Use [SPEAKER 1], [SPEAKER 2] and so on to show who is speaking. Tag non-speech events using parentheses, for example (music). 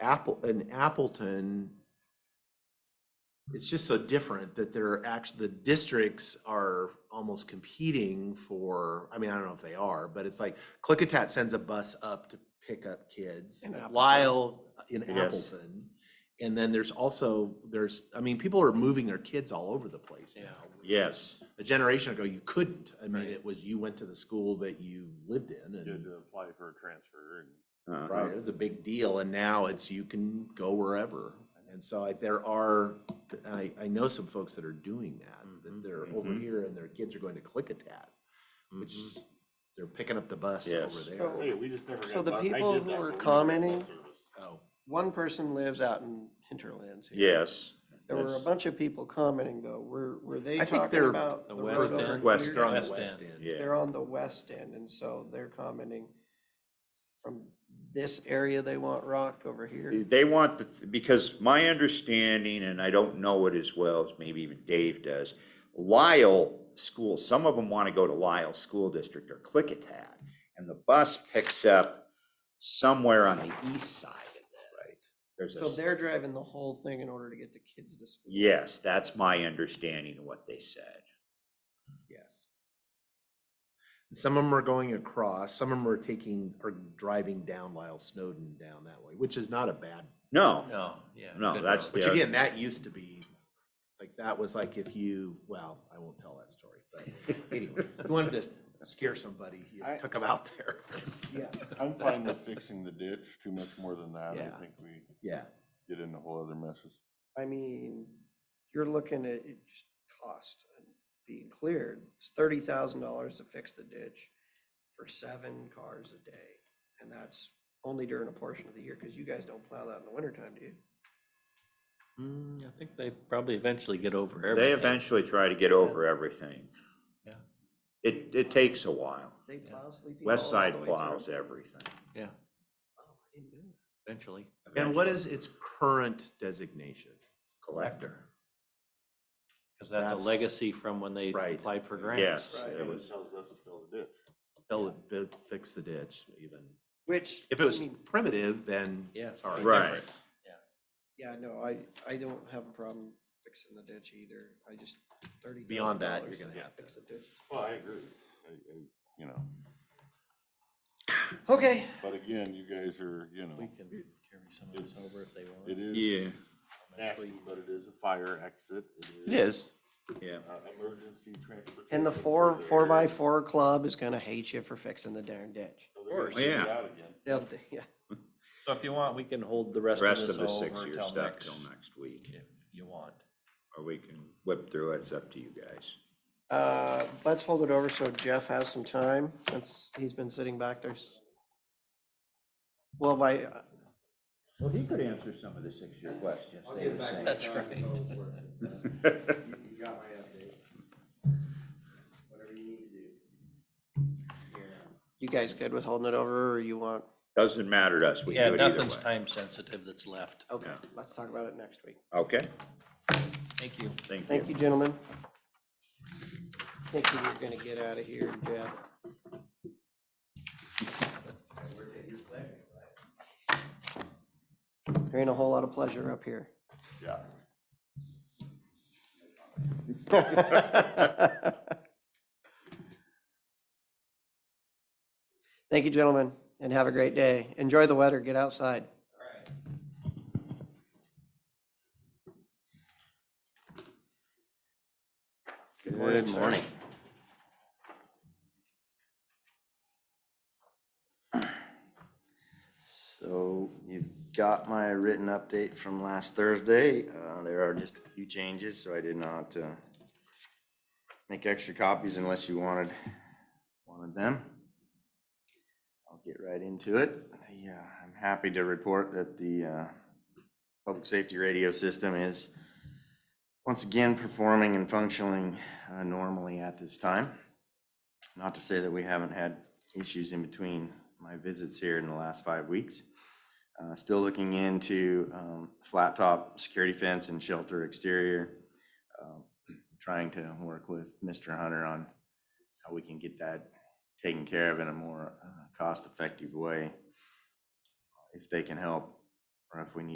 [SPEAKER 1] Apple, in Appleton, it's just so different that they're actually, the districts are almost competing for, I mean, I don't know if they are, but it's like Clickitat sends a bus up to pick up kids.
[SPEAKER 2] In Appleton.
[SPEAKER 1] Lyle uh, in
[SPEAKER 3] Yes.
[SPEAKER 1] Appleton. And then there's also, there's, I mean, people are moving their kids all over the place
[SPEAKER 2] Yeah.
[SPEAKER 1] now.
[SPEAKER 3] Yes.
[SPEAKER 1] A generation ago, you couldn't. I mean,
[SPEAKER 2] Right.
[SPEAKER 1] it was, you went to the school that you lived in
[SPEAKER 2] You had
[SPEAKER 1] and
[SPEAKER 2] to apply for a transfer and
[SPEAKER 3] Uh-huh.
[SPEAKER 1] Right, it was a big deal, and now it's, you can go wherever. And so I, there are, I, I know some folks that are doing that, that
[SPEAKER 2] Mhm.
[SPEAKER 1] they're over
[SPEAKER 3] Mhm.
[SPEAKER 1] here and their kids are going to Clickitat, which
[SPEAKER 2] Mhm.
[SPEAKER 1] is, they're picking up the bus
[SPEAKER 3] Yes.
[SPEAKER 1] over
[SPEAKER 4] So-
[SPEAKER 1] there.
[SPEAKER 2] Hey, we just never.
[SPEAKER 4] So
[SPEAKER 2] got
[SPEAKER 4] the
[SPEAKER 2] bu- I did
[SPEAKER 4] people
[SPEAKER 2] that,
[SPEAKER 4] who
[SPEAKER 2] but
[SPEAKER 4] were
[SPEAKER 2] we never got bus
[SPEAKER 4] commenting-
[SPEAKER 2] service.
[SPEAKER 1] Oh,
[SPEAKER 4] One person lives out in hinterlands here.
[SPEAKER 3] Yes,
[SPEAKER 4] There were a
[SPEAKER 3] that's-
[SPEAKER 4] bunch of people commenting though. Were, were they
[SPEAKER 1] I think
[SPEAKER 4] talking
[SPEAKER 1] they're
[SPEAKER 4] about
[SPEAKER 2] The
[SPEAKER 4] the
[SPEAKER 2] west
[SPEAKER 4] road
[SPEAKER 2] end.
[SPEAKER 4] over
[SPEAKER 3] West
[SPEAKER 4] here?
[SPEAKER 1] they're on the
[SPEAKER 2] West
[SPEAKER 1] west
[SPEAKER 2] End.
[SPEAKER 1] end.
[SPEAKER 3] yeah.
[SPEAKER 4] They're on the west end and so they're commenting from this area they want rocked over here.
[SPEAKER 3] They want, the- because my understanding, and I don't know it as well as maybe even Dave does, Lyle School, some of them want to go to Lyle School District or Clickitat. And the bus picks up somewhere on the east side of that. Right. There's
[SPEAKER 4] So
[SPEAKER 3] a,
[SPEAKER 4] they're driving the whole thing in order to get the kids to school.
[SPEAKER 3] yes, that's my understanding of what they said.
[SPEAKER 1] Yes. And Some of them are going across, some of them are taking, are driving down Lyle Snowden down that way, which is not a bad
[SPEAKER 3] No,
[SPEAKER 2] No, yeah.
[SPEAKER 3] No,
[SPEAKER 2] good
[SPEAKER 3] that's
[SPEAKER 2] road.
[SPEAKER 1] Which
[SPEAKER 3] Yeah.
[SPEAKER 1] again, that used to be, like, that was like if you, well, I won't tell that story, but anyway, you wanted to scare somebody, you
[SPEAKER 2] I-
[SPEAKER 1] took them out there.
[SPEAKER 4] Yeah.
[SPEAKER 2] I'm fine with fixing the ditch, too much more than that,
[SPEAKER 1] Yeah.
[SPEAKER 2] I think we
[SPEAKER 1] Yeah,
[SPEAKER 2] get into whole other messes.
[SPEAKER 4] I mean, you're looking at it just cost and being cleared. It's thirty thousand dollars to fix the ditch for seven cars a day. And that's only during a portion of the year, because you guys don't plow that in the wintertime, do you?
[SPEAKER 5] Mm, I think they probably eventually get over everything.
[SPEAKER 3] they eventually try to get over everything.
[SPEAKER 5] Yeah.
[SPEAKER 3] It, it takes a while.
[SPEAKER 4] They
[SPEAKER 5] Yeah.
[SPEAKER 4] plow Sleepy
[SPEAKER 3] West
[SPEAKER 4] Hollow all
[SPEAKER 3] Side
[SPEAKER 4] the way through?
[SPEAKER 3] plows everything.
[SPEAKER 5] Yeah,
[SPEAKER 4] Oh, I didn't know that.
[SPEAKER 5] eventually.
[SPEAKER 1] and what is its current designation?
[SPEAKER 3] Collector.
[SPEAKER 5] Because that's a
[SPEAKER 1] That's-
[SPEAKER 5] legacy from when they
[SPEAKER 1] Right.
[SPEAKER 5] applied for
[SPEAKER 3] Yes,
[SPEAKER 5] grants.
[SPEAKER 4] Right.
[SPEAKER 3] it
[SPEAKER 2] And
[SPEAKER 3] was.
[SPEAKER 2] it tells us to fill the ditch.
[SPEAKER 1] They'll bu- fix the ditch even.
[SPEAKER 4] Which.
[SPEAKER 1] If
[SPEAKER 4] I
[SPEAKER 1] it was
[SPEAKER 4] mean,
[SPEAKER 1] primitive, then
[SPEAKER 5] Yeah.
[SPEAKER 1] it's all right.
[SPEAKER 3] Right.
[SPEAKER 4] Yeah, no, I, I don't have a problem fixing the ditch either. I just thirty thousand dollars.
[SPEAKER 1] Beyond that, you're gonna have to.
[SPEAKER 4] Fix the ditch.
[SPEAKER 2] Well, I agree, I, I, you know,
[SPEAKER 4] Okay,
[SPEAKER 2] but again, you guys are, you know,
[SPEAKER 5] We can carry some of this over if they
[SPEAKER 2] it
[SPEAKER 5] want.
[SPEAKER 2] is. Nasty, but it is a fire exit.
[SPEAKER 1] It is.
[SPEAKER 3] yeah.
[SPEAKER 2] Uh, emergency transportation.
[SPEAKER 4] and the
[SPEAKER 2] for
[SPEAKER 4] four,
[SPEAKER 2] the
[SPEAKER 4] four by
[SPEAKER 2] area.
[SPEAKER 4] four club is gonna hate you for fixing the darn ditch.
[SPEAKER 2] So they're gonna
[SPEAKER 5] course.
[SPEAKER 2] send it
[SPEAKER 3] Yeah.
[SPEAKER 2] out again.
[SPEAKER 4] They'll, yeah,
[SPEAKER 5] So if you want, we can hold the rest of
[SPEAKER 3] Rest
[SPEAKER 5] this
[SPEAKER 3] of the
[SPEAKER 5] all over
[SPEAKER 3] six-year
[SPEAKER 5] till
[SPEAKER 3] stuff
[SPEAKER 5] next,
[SPEAKER 3] till next week,
[SPEAKER 5] if you want.
[SPEAKER 3] or we can whip through it, it's up to you guys.
[SPEAKER 4] Uh, let's hold it over so Jeff has some time, since he's been sitting back there. s- Well, my, uh,
[SPEAKER 3] Well, he could answer some of the six-year questions.
[SPEAKER 5] That's right.
[SPEAKER 6] You got my update. Whatever you need to do.
[SPEAKER 4] you guys good with holding it over, or you want,
[SPEAKER 3] (laughs) Doesn't matter to us, we
[SPEAKER 5] Yeah,
[SPEAKER 3] do it either
[SPEAKER 5] nothing's
[SPEAKER 3] way.
[SPEAKER 5] time sensitive that's left.
[SPEAKER 4] okay,
[SPEAKER 3] No.
[SPEAKER 4] let's talk about it next week.
[SPEAKER 3] Okay,
[SPEAKER 5] Thank you.
[SPEAKER 3] thank
[SPEAKER 4] Thank
[SPEAKER 3] you.
[SPEAKER 4] you, gentlemen. Thank you, you're gonna get out of here, Jeff. There ain't a whole lot of pleasure up here.
[SPEAKER 2] Yeah.
[SPEAKER 4] Thank you, gentlemen, and have a great day. Enjoy the weather, get outside. Good morning, sir.
[SPEAKER 6] So you've got my written update from last Thursday. Uh, there are just a few changes, so I did not, uh, make extra copies unless you wanted, wanted them. I'll get right into it. Yeah, I'm happy to report that the, uh, public safety radio system is once again performing and functioning, uh, normally at this time. Not to say that we haven't had issues in between my visits here in the last five weeks. Uh, Still looking into um, flat top security fence and shelter exterior. Um, Trying to work with Mr. Hunter on how we can get that taken care of in a more uh, cost-effective way. If they can help or if we need